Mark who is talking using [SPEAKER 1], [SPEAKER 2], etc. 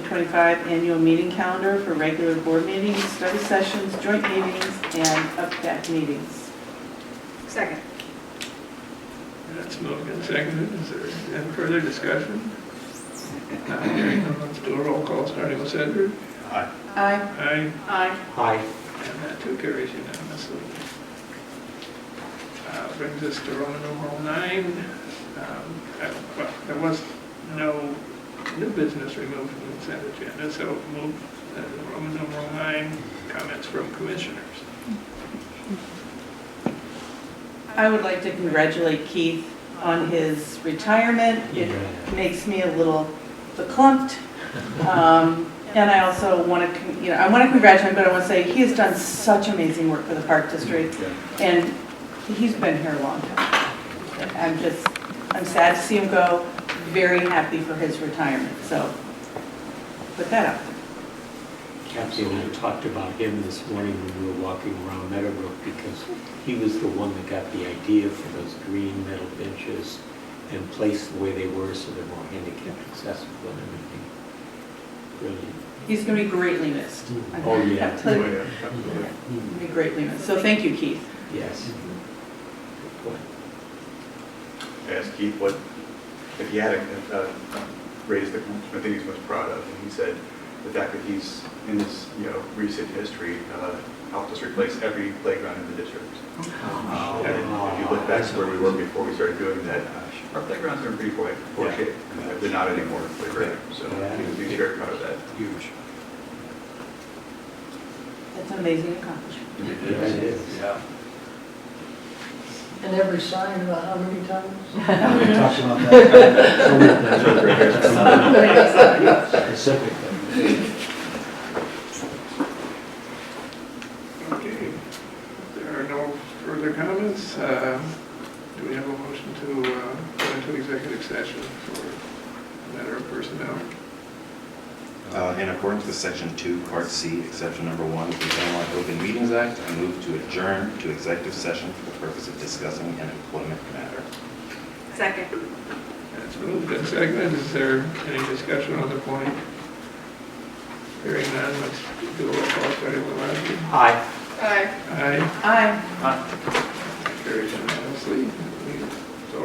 [SPEAKER 1] 2025 annual meeting calendar for regular board meetings, study sessions, joint meetings, and updated meetings.
[SPEAKER 2] Second.
[SPEAKER 3] That's moved and seconded. Is there any further discussion? Not hearing none, let's do a roll call, starting with Sedgwick.
[SPEAKER 4] Aye.
[SPEAKER 1] Aye.
[SPEAKER 3] Aye,
[SPEAKER 2] Aye.
[SPEAKER 4] Aye.
[SPEAKER 3] and that too carries unanimously. Uh, Brings us to Roman numeral nine. Um, uh, well, There was no new business removed from the consent agenda, so move uh, Roman numeral nine, comments from commissioners.
[SPEAKER 1] I would like to congratulate Keith on his retirement. It makes me a little clumped. And I also want to, you know, I want to congratulate him, but I want to say he has done such amazing work for the Park District. And he's been here a long time. I'm just, I'm sad to see him go, very happy for his retirement, so put that out.
[SPEAKER 4] Kathy and I talked about him this morning when we were walking around Meadowbrook because he was the one that got the idea for those green metal benches and placed the way they were so they're more handicapped accessible and everything. Brilliant.
[SPEAKER 1] He's going to be greatly missed.
[SPEAKER 4] Oh, yeah.
[SPEAKER 1] He'll
[SPEAKER 5] Hmm.
[SPEAKER 1] Be greatly missed, so thank you, Keith.
[SPEAKER 4] Yes. Good point.
[SPEAKER 6] asked Keith what, if he had uh, raised the, I think he's most proud of, and he said the fact that he's in his, you know, recent history, uh, helped us replace every playground in the district.
[SPEAKER 4] Oh,
[SPEAKER 6] Uh, and If you look back to where we were before we started doing that, uh, our playgrounds are in pretty poor poor shape, and they're not anymore, they're great, so he- he's very proud of that.
[SPEAKER 4] Huge.
[SPEAKER 1] That's an amazing accomplishment.
[SPEAKER 4] Yeah, it is.
[SPEAKER 7] And every sign about how many times?
[SPEAKER 5] We talked about that. Specifically.
[SPEAKER 3] Okay, If there are no further comments. uh, Do we have a motion to uh, go into executive session for a matter of personnel?
[SPEAKER 8] Uh, In accordance with Section 2, Part C, Exception Number 1 of the Illinois Open Meetings Act, I move to adjourn to executive session for the purpose of discussing an employment matter.
[SPEAKER 2] Second.
[SPEAKER 3] That's moved and seconded. Is there any discussion on the point? Hearing none, let's do a roll call, starting with Leslie.
[SPEAKER 4] Aye.
[SPEAKER 2] Aye.
[SPEAKER 3] Aye,
[SPEAKER 1] Aye.
[SPEAKER 3] carries unanimously.